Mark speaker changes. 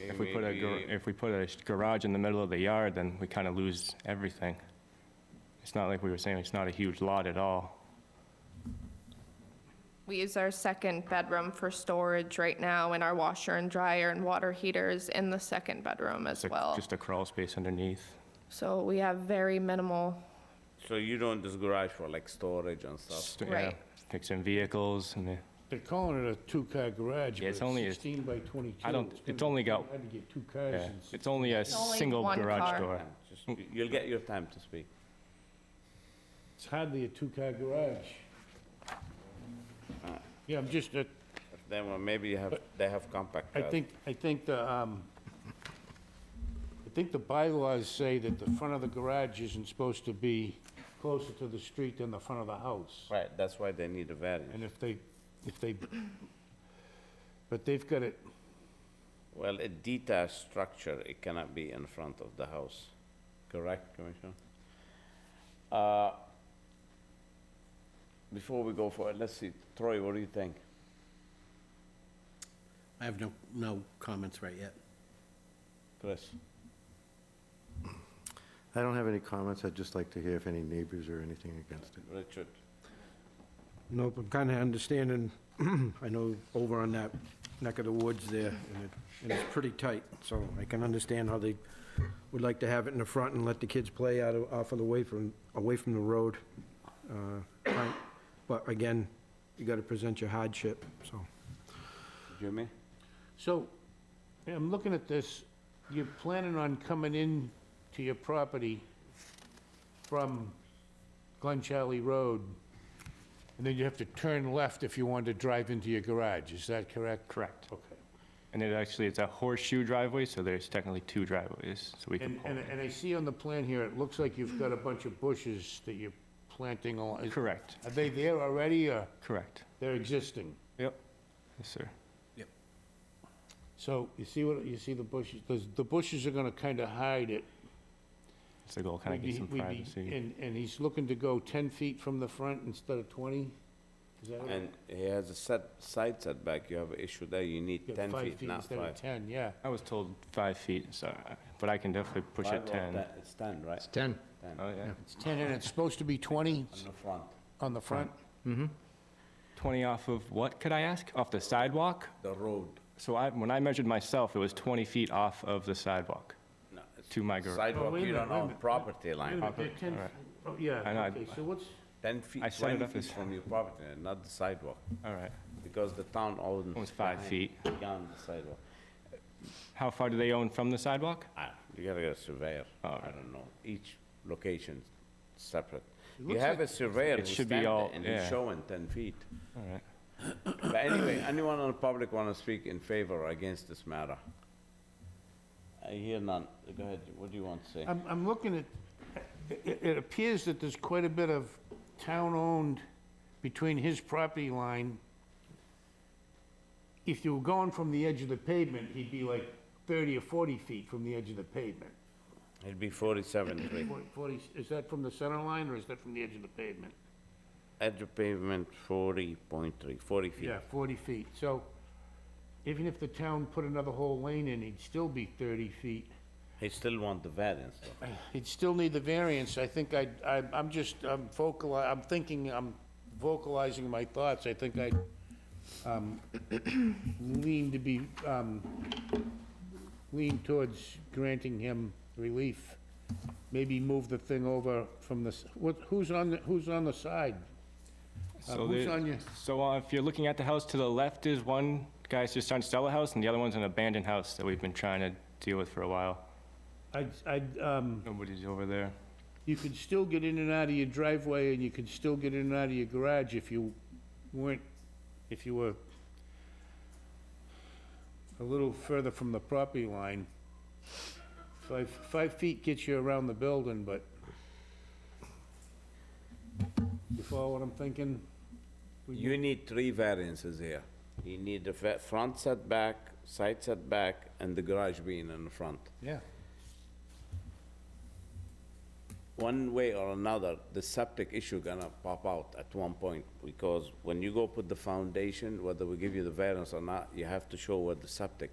Speaker 1: if we put a, gar-
Speaker 2: maybe-
Speaker 1: if we put a sh- garage in the middle of the yard, then we kind of lose everything. It's not like we were saying, it's not a huge lot at all.
Speaker 3: We use our second bedroom for storage right now and our washer and dryer and water heaters in the second bedroom as
Speaker 1: It's a-
Speaker 3: well.
Speaker 1: Just a crawl space underneath.
Speaker 3: So we have very minimal,
Speaker 2: So you don't this garage for like storage and stuff?
Speaker 1: Just, yeah,
Speaker 3: Right.
Speaker 1: Fixing vehicles and the-
Speaker 4: They're calling it a two-car garage,
Speaker 1: Yeah,
Speaker 4: but
Speaker 1: it's
Speaker 4: it's
Speaker 1: only a-
Speaker 4: 16 by 22.
Speaker 1: I don't-
Speaker 4: gonna
Speaker 1: it's only
Speaker 4: be
Speaker 1: got-
Speaker 4: Hard to get two cars
Speaker 1: yeah.
Speaker 4: in.
Speaker 1: It's only a
Speaker 3: only
Speaker 1: single
Speaker 3: one
Speaker 1: garage
Speaker 3: car.
Speaker 1: door.
Speaker 2: Just- you- You'll get your time to speak.
Speaker 4: It's hardly a two-car garage. Yeah, I'm just, uh,
Speaker 2: Then well, maybe you have, they have compact
Speaker 4: I
Speaker 2: cars.
Speaker 4: think, I think the, um, I think the bylaws say that the front of the garage isn't supposed to be closer to the street than the front of the house.
Speaker 2: Right, that's why they need a variance.
Speaker 4: And if they, if they, but they've got it,
Speaker 2: Well, a detached structure, it cannot be in front of the house, correct, Commissioner? Uh, Before we go for it, let's see, Troy, what do you think?
Speaker 5: I have no, no comments right yet.
Speaker 2: Chris?
Speaker 6: I don't have any comments. I'd just like to hear if any neighbors or anything against it.
Speaker 2: Richard?
Speaker 5: Nope, I'm kind of understanding, I know over on that neck of the woods there, and it, and it's pretty tight, so I can understand how they would like to have it in the front and let the kids play out of, off of the way from, away from the road. uh, right. But again, you got to present your hardship, so.
Speaker 2: Jimmy?
Speaker 4: so, I'm looking at this, you're planning on coming in to your property from Glen Charlie Road, and then you have to turn left if you want to drive into your garage, is that correct?
Speaker 1: Correct.
Speaker 4: Okay.
Speaker 1: And it actually, it's a horseshoe driveway, so there's technically two driveways, so we can
Speaker 4: And,
Speaker 1: pull.
Speaker 4: and,
Speaker 1: in.
Speaker 4: and I see on the plan here, it looks like you've got a bunch of bushes that you're planting along. Is-
Speaker 1: Correct,
Speaker 4: Are they there already, or
Speaker 1: correct.
Speaker 4: they're existing?
Speaker 1: Yep, yes, sir.
Speaker 4: So, you see what, you see the bushes, those- the bushes are gonna kinda hide it.
Speaker 1: It's the goal, kind of get
Speaker 4: We'd be-
Speaker 1: some
Speaker 4: we'd be-
Speaker 1: privacy.
Speaker 4: And, and he's looking to go ten feet from the front instead of twenty? Is that right?
Speaker 2: And he has a set, side setback, you have an issue there, you need
Speaker 4: You got
Speaker 2: 10
Speaker 4: five
Speaker 2: feet, not
Speaker 4: Instead of
Speaker 2: five.
Speaker 4: ten, yeah.
Speaker 1: I was told five feet, so, I- but I can definitely push
Speaker 2: Five
Speaker 1: it
Speaker 2: or
Speaker 1: 10.
Speaker 2: ten- It's 10, right?
Speaker 7: It's 10.
Speaker 1: Oh, yeah.
Speaker 4: It's ten, and it's supposed to be twenty
Speaker 2: On the front,
Speaker 4: on the front?
Speaker 1: 20 off of what, could I ask? Off the sidewalk?
Speaker 2: the road.
Speaker 1: So I, when I measured myself, it was 20 feet off of the sidewalk
Speaker 2: No, it's
Speaker 1: to my garage.
Speaker 2: Sidewalk,
Speaker 4: wait a
Speaker 2: you
Speaker 4: minute,
Speaker 2: don't
Speaker 4: wait a
Speaker 2: own
Speaker 4: minute.
Speaker 2: property line.
Speaker 4: Wait a minute, they're 10
Speaker 1: alright.
Speaker 4: oh, yeah,
Speaker 1: I know, I-
Speaker 4: okay, so what's,
Speaker 2: 10 feet,
Speaker 1: I set it
Speaker 2: 20
Speaker 1: up
Speaker 2: feet
Speaker 1: as-
Speaker 2: from your property, line, not the sidewalk,
Speaker 1: All right.
Speaker 2: because the town owns.
Speaker 1: Owns five
Speaker 2: behind-
Speaker 1: feet.
Speaker 2: Beyond the sidewalk.
Speaker 1: How far do they own from the sidewalk?
Speaker 2: Ah, You gotta get a surveyor,
Speaker 1: Oh.
Speaker 2: I don't know, each location separate. You
Speaker 4: looks
Speaker 2: have a surveyor
Speaker 1: it
Speaker 2: who's
Speaker 1: should be
Speaker 2: standing
Speaker 1: all-
Speaker 2: and he's
Speaker 1: yeah.
Speaker 2: showing 10 feet.
Speaker 1: All right.
Speaker 2: But anyway, anyone on the public wanna speak in favor or against this matter? I hear none, go ahead, what do you want to say?
Speaker 4: I'm, I'm looking at, it, it appears that there's quite a bit of town-owned between his property line. If you were going from the edge of the pavement, he'd be like thirty or forty feet from the edge of the pavement.
Speaker 2: It'd be 47, 3.
Speaker 4: Forty- Forty, is that from the center line, or is that from the edge of the pavement?
Speaker 2: Edge of pavement, 40.3, 40 feet.
Speaker 4: Yeah, forty feet, so even if the town put another whole lane in, he'd still be thirty feet.
Speaker 2: He still want the variance, though.
Speaker 4: He'd still need the variance, I think I, I, I'm just, I'm vocal, I'm thinking, I'm vocalizing my thoughts, I think I, um, lean to be, um, lean towards granting him relief. Maybe move the thing over from the, s- what, who's on, the who's on the side? Uh,
Speaker 1: So
Speaker 4: who's
Speaker 1: they-
Speaker 4: on your-
Speaker 1: So uh, if you're looking at the house, to the left is one guy's just trying to sell a house, and the other one's an abandoned house that we've been trying to deal with for a while.
Speaker 4: I'd, I'd, um,
Speaker 1: Nobody's over there.
Speaker 4: you could still get in and out of your driveway, and you could still get in and out of your garage if you weren't, if you were a little further from the property line. Five, five feet gets you around the building, but you follow what I'm thinking?
Speaker 2: You need three variances here. You need the fa- front setback, side setback, and the garage being in the front.
Speaker 4: Yeah.
Speaker 2: One way or another, the septic issue gonna pop out at one point, because when you go put the foundation, whether we give you the variance or not, you have to show where the septic